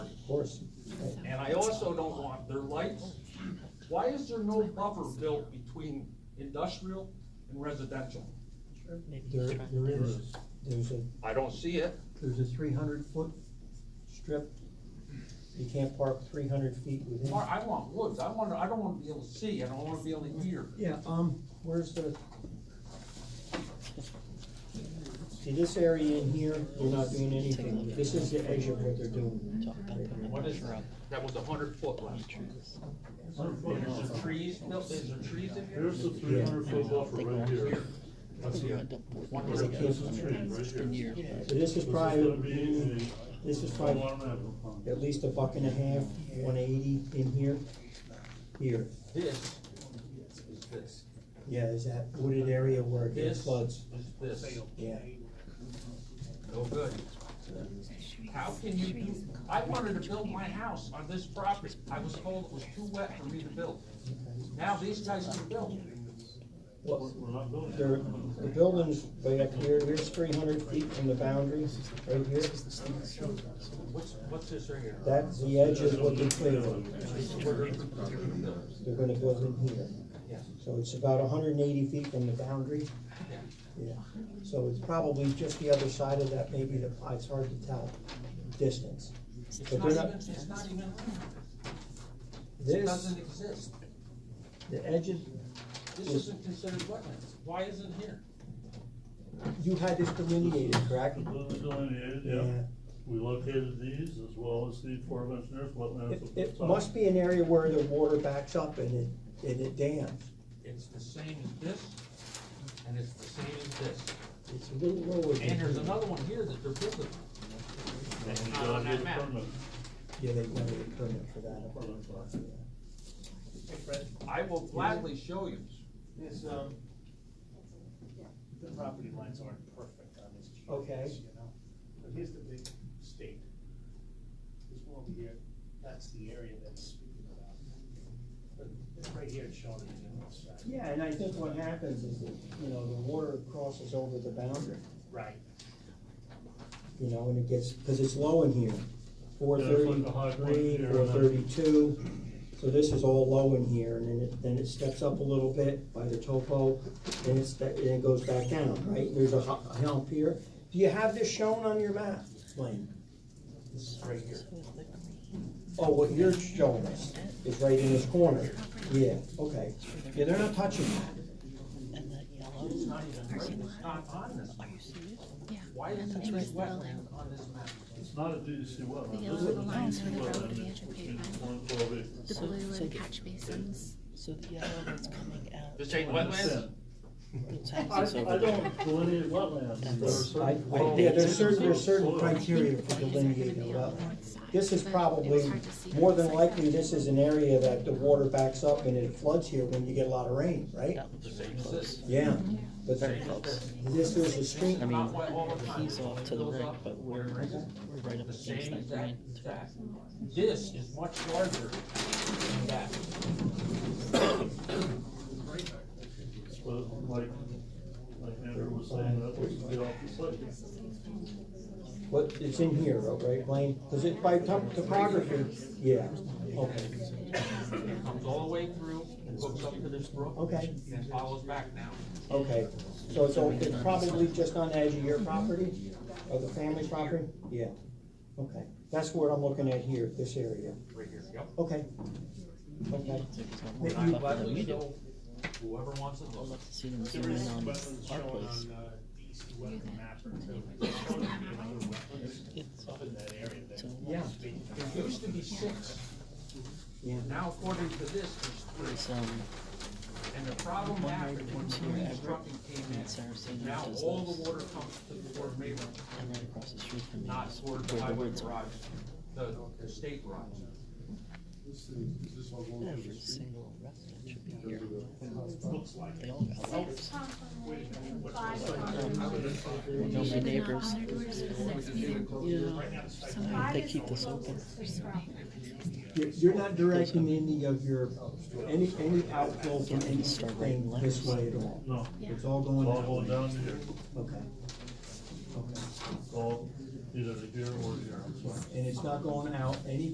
course. And I also don't want their lights. Why is there no buffer built between industrial and residential? There, there is, there's a, I don't see it. there's a three hundred foot strip. You can't park three hundred feet within. Mar- I want woods. I want, I don't wanna be able to see. I don't wanna be able to hear. Yeah, um, where's the? See, this area in here, we're not doing anything. This is the edge of what they're doing. What is that? That was a hundred foot last year. There's some trees, no, there's some trees in here. Here's the three hundred foot buffer right here. That's it. This is three, right here. So this is This is gonna probably, be this is a, on probably Waterman Avenue. at least a buck and a half, one eighty in here, here. This is this. Yeah, is that wooded area where it gets This floods? is this. Yeah. No Oh, good. How can you do, I wanted to build my house on this property. I was told it was too wet for me to build. Now these guys can build. Well, We're not building. there, the building's way up here, here's three hundred feet from the boundary, right here. What's, what's this right here? That's the edge of what they're clearing. Yes. They're gonna build in here. So it's about hundred and eighty feet from the boundary. Yeah. Yeah, so it's probably just the other side of that, maybe the, it's hard to tell, distance. It's But not they're even, not- it's not even, it This, doesn't exist. the edge of, This isn't considered wetlands. Why isn't here? you had this delineated, correct? The building's delineated, yeah. We located these as well as the aforementioned It, wetlands. it must be an area where the water backs up and it, and it dams. It's the same as this, and it's the same as this. It's a little lower. than And there's here. another one here that they're building. And you not on gotta that get a map. permit. Yeah, they wanted a permit for that. I believe. I will gladly show you. Is, um, the property lines aren't perfect on this Okay. GIS, you know? But here's the big state. There's one over here, that's the area that's speaking about. But right here, it's showing the general side. Yeah, and I think what happens is that, you know, the water crosses over the boundary, Right. you know, and it gets, because it's low in here. Four Yeah, it's like a high point thirty-three, here, four and then- thirty-two, so this is all low in here, and then it, then it steps up a little bit by the topo, and it's, and it goes back down, right? There's a hu- a hump here. Do you have this shown on your map, Blaine? This is right here. Oh, what you're showing us is right in this corner. Yeah, okay. Yeah, they're not touching that. And that yellow. It's not even, it's not on this. map. Why isn't it wetland on this map? It's not a DEC wetland. The yellow This is a little lines DEC where the road wetland. began to It's pave. between one and twelve acres. The blue So- and catch basins. So the yellow that's coming out. This ain't wetlands? It's I, houses I over there. don't delineate wetlands. There are certain- I, I, yeah, there's certain, there's certain criteria for delineating a wetland. This is probably, more than likely, this is an area that the water backs up and it floods here when you get a lot of rain, right? That looks Same as close. this. Yeah, but Very close. this is a stream. I Not mean, wet all the time. he's off to the Goes right, up, but we're, where it is. we're right up The against same that green. exact, exact. This is much larger than that. But like, like Andrew was saying, that was the opposite. What, it's in here, right, Blaine? Because it, by top- topography, yeah, okay, It comes all the way through, and hooks up to this brook. Okay. And follows back now. okay. So it's, all- it's probably just on the edge of your property, of the family property? Yeah, okay. That's what I'm looking at here, this area. Right here, yep. Okay. Okay. There's one more Maybe And I buffer than gladly we do. show whoever wants to I'd look. love to see them There zoom is in on wetlands our shown place. on, uh, DC wetland map or two. It's showing the amount of wetlands It's up in that area that. Yeah. Speaking of. There used to be six. Yeah. Now according to this, there's There's, three. um, And the problem One happened right when towards here, green Everett, trucking came and in. Saraceno Now does all this. the water comes to the Fort Maybach. and right across the street from me not is toward the where the highway woods garage, are. the, the state garage. Every single resident should be here. They all got letters. Know my neighbors. Yeah. Sometimes they keep this open. You're- You're not directing any of your, any, any outflow from anything this way at all? No, It's all it's going all that going way? down here, Okay. Okay. it's all either here or here, I'm sorry. And it's not going out any